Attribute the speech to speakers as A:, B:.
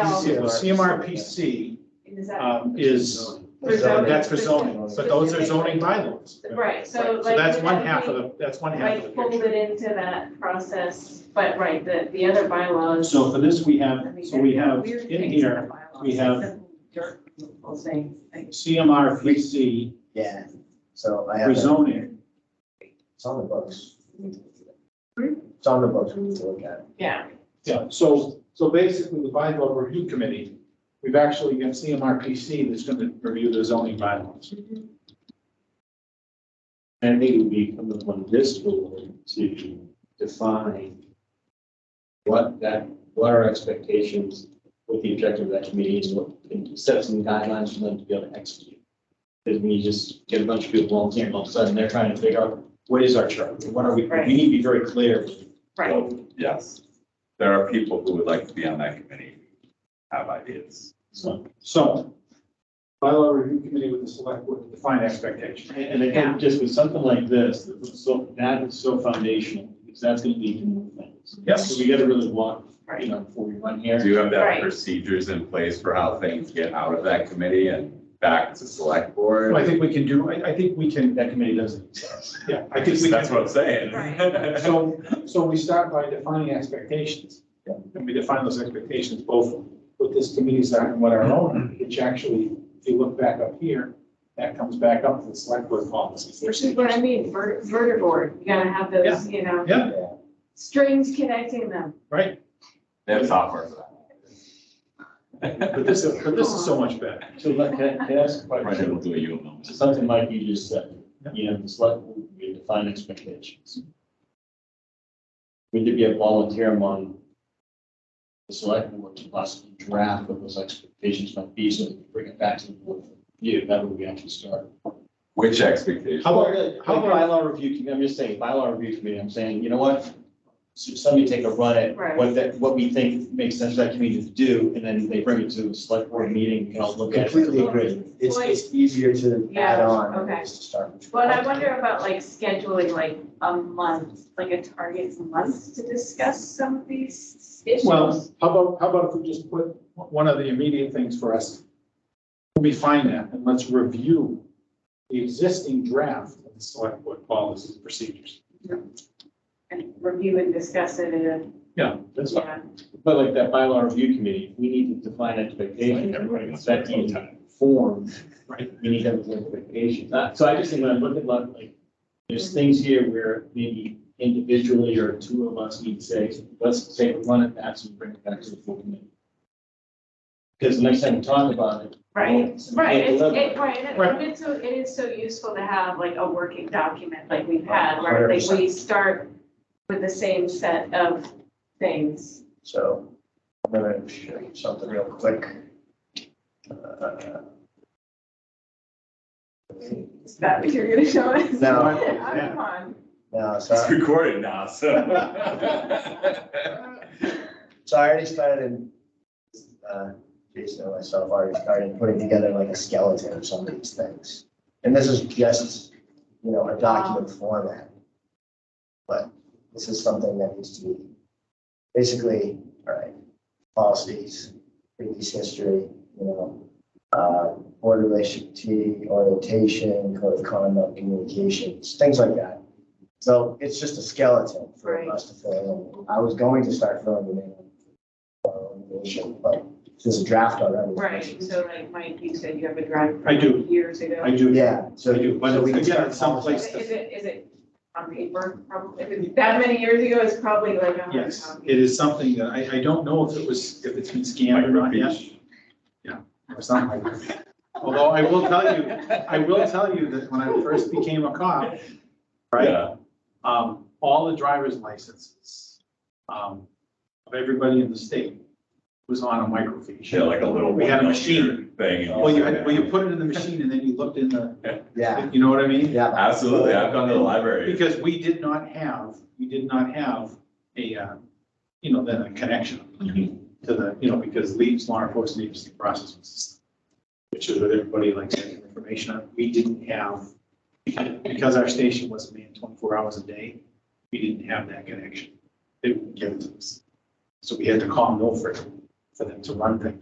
A: CMRPC,
B: CMRPC.
A: CMRPC
C: And is that,
A: um, is,
C: For zoning.
A: that's for zoning, but those are zoning bylaws.
C: right, so
A: So
C: like.
A: that's
C: would
A: one
C: that
A: half of
C: be,
A: the, that's one half of
C: Like
A: the
C: fold
A: picture.
C: it into that process, but right, the, the other bylaws.
A: So for this, we
C: I
A: have,
C: mean,
A: so we
C: there are
A: have
C: weird
A: in
C: things
A: here,
C: the bylaws,
A: we
C: like
A: have-
C: the Dirt removal thing, like,
A: CMRPC
B: Yeah, so I have,
A: for
B: it.
A: zoning.
B: it's on the books. It's on the books, we can look at it.
C: yeah,
A: Yeah, so, so basically the bylaw review committee, we've actually got CMRPC that's gonna review the zoning bylaws.
D: I think it would be incumbent on this board to define what that, what our expectations, what the objective of that committee is, what, and set some guidelines for them to be able to execute. Because when you just get a bunch of people volunteering, all of a sudden they're trying to figure out, what is our chart? What are we, we
C: Right.
D: need to be very clear.
C: right,
E: Yes, there are people who would like to be on that committee, have ideas.
A: So, so bylaw review committee with the select board to define expectations.
D: And, and I
C: Yeah.
D: think just with something like this, that was so, that is so foundational, because that's gonna lead to more things.
E: Yes.
D: So we gotta really walk, you
C: right.
D: know, before we run here.
E: Do you have to
C: Right.
E: have procedures in place for how things get out of that committee and back to select board?
A: Well, I think we can do, I, I think we can,
D: That committee doesn't exist.
A: yeah, I think we
E: That's
A: can.
E: what I'm saying.
A: So, so we start by defining expectations. And we define those expectations both what this committee's are and what our own, which actually, if you look back up here, that comes back up to the select board policies.
C: Which is what I mean, ver- vertibord, you gotta have those, you know,
A: Yeah,
B: Yeah.
C: strings connecting them.
A: right.
E: They have software for that.
A: But this, but this is so much better.
D: So like, can I can I ask a
E: Right,
D: question?
E: it'll do a you a moment.
D: So something like you just said, you know, the select, board, we define expectations. Would there be a volunteer among the select board to possibly draft what those expectations might be, so that we bring it back to the board for review? That would be actually start.
E: Which expectations?
A: How about-
D: Like
A: how about-
D: bylaw review, committee, I'm just saying, bylaw review committee, I'm saying, you know what? So Somebody take a run at
C: Right.
D: what that, what we think makes sense for that community to do, and then they bring it to a select board meeting, we can all look at it.
B: Completely agree. It's, it's easier to add
C: Yeah,
B: on. than
C: okay.
B: just to start from
C: But I
B: scratch.
C: wonder about like scheduling like a month, like a target month to discuss some of these issues.
A: Well, how about, how about if we just put one of the immediate things for us? Let me find that and let's review the existing draft of the select board policies and procedures.
C: And review and discuss it in a,
A: Yeah,
D: That's
C: yeah,
D: But like that bylaw review committee, we need to define expectations,
E: Everybody wants
D: that
E: their own
D: needs
E: time.
D: form,
A: Right.
D: we need to have those expectations. Uh, So I just think when I look at lot, like, there's things here where maybe individually or two of us need to say, let's take a run at that and bring it back to the full committee. Because the next time we talk about it.
C: right? Right, it's,
D: Right.
C: it, right, and it- and
A: Right.
C: it's so, it is so useful to have like a working document like we've had, where like we start with the same set of things.
B: So I'm gonna show you something real quick. Uh,
C: Is that what you're gonna show us?
B: No.
C: Oh, Come on.
B: No,
E: It's
B: so,
E: recorded now, so.
B: so I already started, uh, Jason and myself already started putting together like a skeleton of some of these things. And this is just, you know, a document format. But this is something that needs to be, basically, all right, policies, previous history, you know, uh, board relationship, orientation, code of conduct, communications, things like that. So it's just a skeleton
C: Right.
B: for us to fill in. I was going to start filling it in. uh, information, But there's a draft already.
C: Right, so like Mike, you said you have a drive.
A: I do.
C: from Years ago.
A: I do.
B: Yeah, so.
A: I do, but
B: so we can
A: again,
B: start
A: it's someplace
C: Is
A: to-
C: it- is it, is it on paper? Probably, if it's that many years ago, it's probably like a hard
A: Yes,
C: copy.
A: it is something that I, I don't know if it was, if it's been scanned or not yet.
E: Microfiche.
A: or something like that. Although I will tell you, I will tell you that when I first became a cop, right?
E: Yeah,
A: Um, all the driver's licenses, um, of everybody in the state was on a microfiche.
E: yeah, like a little.
A: We had a
E: one-note
A: machine.
E: Thing. and-
A: Well, you had, well, you put it in the machine and then you looked in the,
B: Yeah,
A: you know what I mean?
B: yeah.
E: Absolutely, I've gone to the library.
A: Because we did not have, we did not have a, uh, you know, then a connection. to the, you know, because leaves, law enforcement agency processing system, which is what everybody likes to get information on. We didn't have, because our station wasn't manned twenty-four hours a day, we didn't have that connection. They wouldn't give it to us. So we had to call Milford for them to run things.